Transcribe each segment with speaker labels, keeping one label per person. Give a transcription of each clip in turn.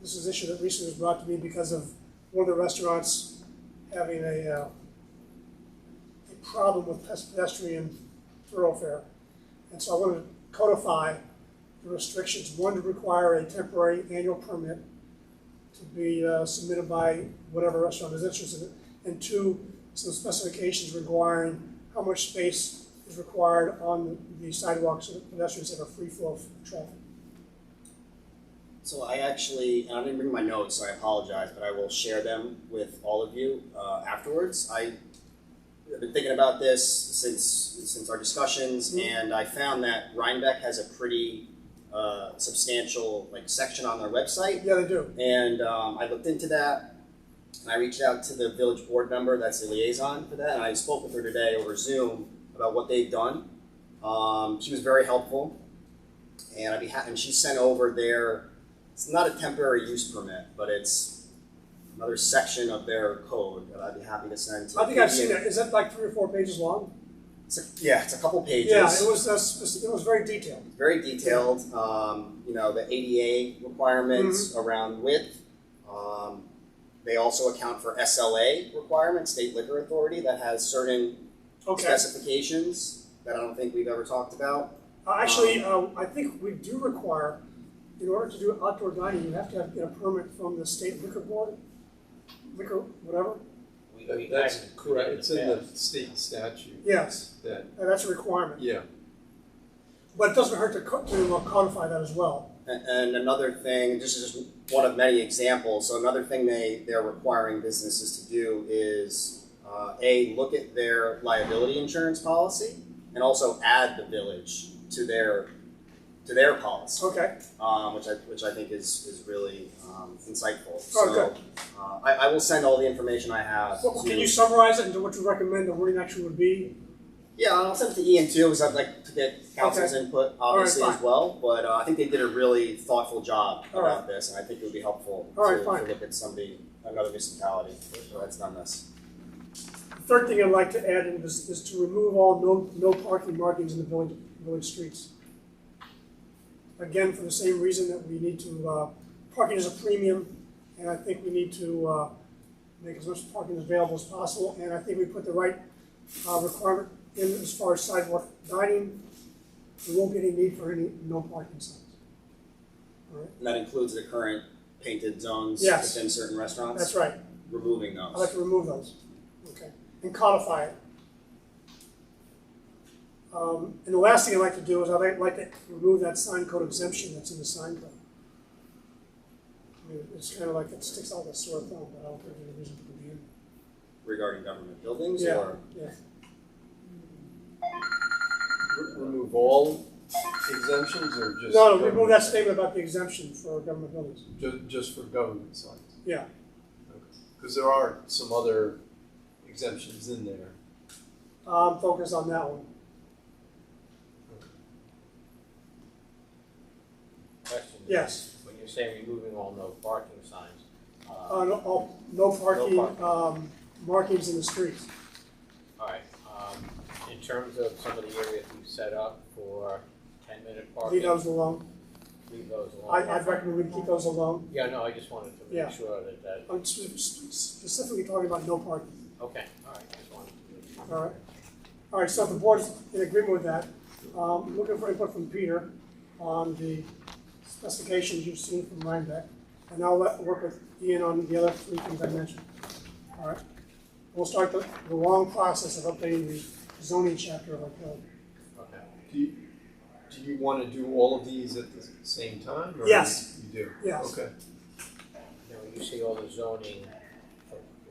Speaker 1: This is an issue that recently was brought to me because of one of the restaurants having a, uh, a problem with pes- pedestrian thoroughfare. And so I wanted to codify the restrictions, one to require a temporary annual permit to be uh, submitted by whatever restaurant is interested in it. And two, some specifications requiring how much space is required on the sidewalks so that pedestrians have a free flow of traffic.
Speaker 2: So I actually, and I didn't bring my notes, so I apologize, but I will share them with all of you uh, afterwards. I have been thinking about this since since our discussions, and I found that Rhinebeck has a pretty uh, substantial like section on their website,
Speaker 1: Yeah, they do.
Speaker 2: and um, I looked into that. And I reached out to the village board member, that's the liaison for that, and I spoke with her today over Zoom about what they've done. Um, she was very helpful, and I'd be happy. And she sent over their it's not a temporary use permit, but it's another section of their code that I'd be happy to send to.
Speaker 1: I think I've seen that. Is that like three or four pages long?
Speaker 2: It's a, yeah, it's a couple pages.
Speaker 1: Yeah, it was, uh, spec- it was very detailed.
Speaker 2: very detailed. Um, you know, the ADA requirements around width. Um, they also account for SLA requirements, state liquor authority, that has certain
Speaker 1: Okay.
Speaker 2: specifications that I don't think we've ever talked about.
Speaker 1: Uh, Actually, uh, I think we do require, in order to do outdoor dining, you have to have, get a permit from the state liquor board, liquor, whatever.
Speaker 3: We, we
Speaker 4: That's
Speaker 3: acted
Speaker 4: correct,
Speaker 3: in
Speaker 4: it's in the
Speaker 3: past.
Speaker 4: state statute
Speaker 1: Yes,
Speaker 4: that,
Speaker 1: and that's a requirement.
Speaker 4: yeah,
Speaker 1: But it doesn't hurt to co- to uh, codify that as well.
Speaker 2: And, and another thing, this is just one of many examples. So another thing they they're requiring businesses to do is uh, a look at their liability insurance policy and also add the village to their to their policy.
Speaker 1: Okay,
Speaker 2: um, which I which I think is is really um, insightful. So
Speaker 1: Oh, good.
Speaker 2: uh, I, I will send all the information I have.
Speaker 1: Well,
Speaker 2: to,
Speaker 1: can you summarize it into what you recommend the wording action would be?
Speaker 2: Yeah, I'll send it to Ian too, because I'd like to get council's input obviously
Speaker 1: fine.
Speaker 2: as well. But uh, I think they did a really thoughtful job
Speaker 1: All
Speaker 2: about this, and I think it would be helpful
Speaker 1: All right,
Speaker 2: to,
Speaker 1: fine.
Speaker 2: to look at somebody another municipality that's done this.
Speaker 1: The third thing I'd like to add in is, is to remove all no, no parking markings in the village, village streets. Again, for the same reason that we need to, uh, parking is a premium, and I think we need to, uh, make as much parking available as possible, and I think we put the right, uh, requirement in as far as sidewalk dining. We won't get any need for any no parking signs. All right,
Speaker 2: And that includes the current painted zones
Speaker 1: Yes.
Speaker 2: within certain restaurants.
Speaker 1: that's right,
Speaker 2: Removing those.
Speaker 1: I'd like to remove those, okay, and codify it. Um, and the last thing I'd like to do is I'd like- like to remove that sign code exemption that's in the sign code. I mean, it's kind of like it sticks out the sore thumb, but I don't think there's a reason to be in.
Speaker 2: regarding government buildings
Speaker 1: Yeah.
Speaker 2: or
Speaker 1: Yeah,
Speaker 4: Re- remove all exemptions or just?
Speaker 1: no, no, remove
Speaker 4: government-
Speaker 1: that statement about the exemption for government buildings,
Speaker 4: Ju- just for government signs?
Speaker 1: yeah,
Speaker 4: Because there are some other exemptions in there.
Speaker 1: I'm focused on that one.
Speaker 3: Question is,
Speaker 1: Yes.
Speaker 3: When you're saying removing all no parking signs, uh,
Speaker 1: Uh, no, all, no parking,
Speaker 3: parking.
Speaker 1: um, markings in the streets.
Speaker 3: all right, um, in terms of some of the areas we've set up for ten minute parking,
Speaker 1: Leave those alone.
Speaker 3: leave those alone.
Speaker 1: I, I'd recommend we keep those alone.
Speaker 3: Yeah, no, I just wanted to
Speaker 1: Yeah.
Speaker 3: make sure that that,
Speaker 1: I'm sp- sp- specifically talking about no parking.
Speaker 3: okay, all right, just wanted to make sure.
Speaker 1: All right. All right, so if the board's in agreement with that, um, looking for input from Peter on the specifications you've seen from Rhinebeck. And I'll let, work with Ian on the other three things I mentioned. All right. We'll start the, the long process of updating the zoning chapter of our code.
Speaker 3: Okay,
Speaker 4: Do you, do you want to do all of these at the same time? or
Speaker 1: Yes.
Speaker 4: You do?
Speaker 1: Yes.
Speaker 4: Okay.
Speaker 3: now you see all the zoning,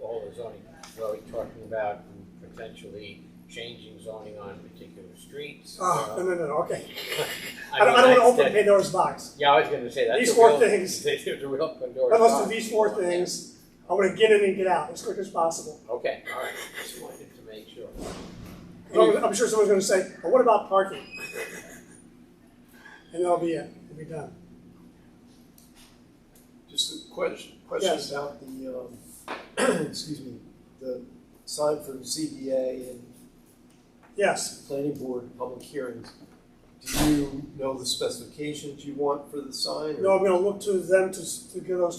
Speaker 3: all the zoning, we're already talking about potentially changing zoning on particular streets.
Speaker 1: Ah, no,
Speaker 3: uh,
Speaker 1: no, no, okay. I don't,
Speaker 3: I mean,
Speaker 1: I don't
Speaker 3: that's-
Speaker 1: want to open
Speaker 3: that-
Speaker 1: Pandora's box.
Speaker 3: Yeah, I was gonna say that's
Speaker 1: These
Speaker 3: a
Speaker 1: four
Speaker 3: real-
Speaker 1: things.
Speaker 3: There's a real Pandora's
Speaker 1: I must
Speaker 3: box.
Speaker 1: do these four things. I want to get in and get out as quick as possible.
Speaker 3: Okay, all right. Just wanted to make sure.
Speaker 1: I'm I'm sure someone's gonna say, well, what about parking? And that'll be it, we'll be done.
Speaker 5: Just a question, question
Speaker 1: Yes.
Speaker 5: about the, um, excuse me, the sign from ZBA and
Speaker 1: Yes,
Speaker 5: planning board public hearings. Do you know the specifications you want for the sign? or-
Speaker 1: no, I'm gonna look to them to, s- to give those